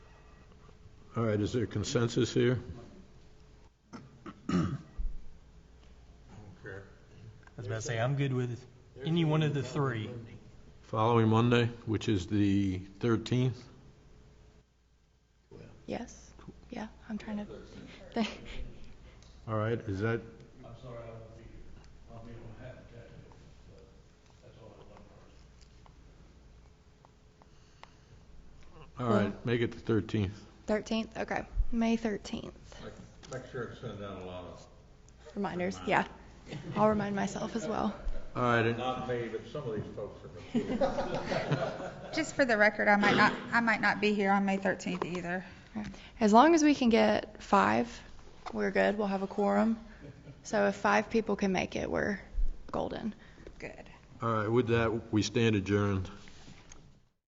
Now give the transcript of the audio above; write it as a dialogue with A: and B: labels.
A: All right, is there consensus here?
B: I was about to say, I'm good with any one of the three.
A: Following Monday, which is the 13th?
C: Yes, yeah, I'm trying to, think.
A: All right, is that,
D: I'm sorry, I won't be here. I'll be on half attack, but that's all I want.
A: all right, make it the 13th.
C: 13th, okay, May 13th.
E: Make sure to send out a lot of,
C: Reminders, yeah. I'll remind myself as well.
A: All right, and-
E: not me, but some of these folks are.
F: Just for the record, I might not, I might not be here on May 13th either.
C: As long as we can get five, we're good, we'll have a quorum. So if five people can make it, we're golden.
F: Good.
A: all right, with that, we stand adjourned.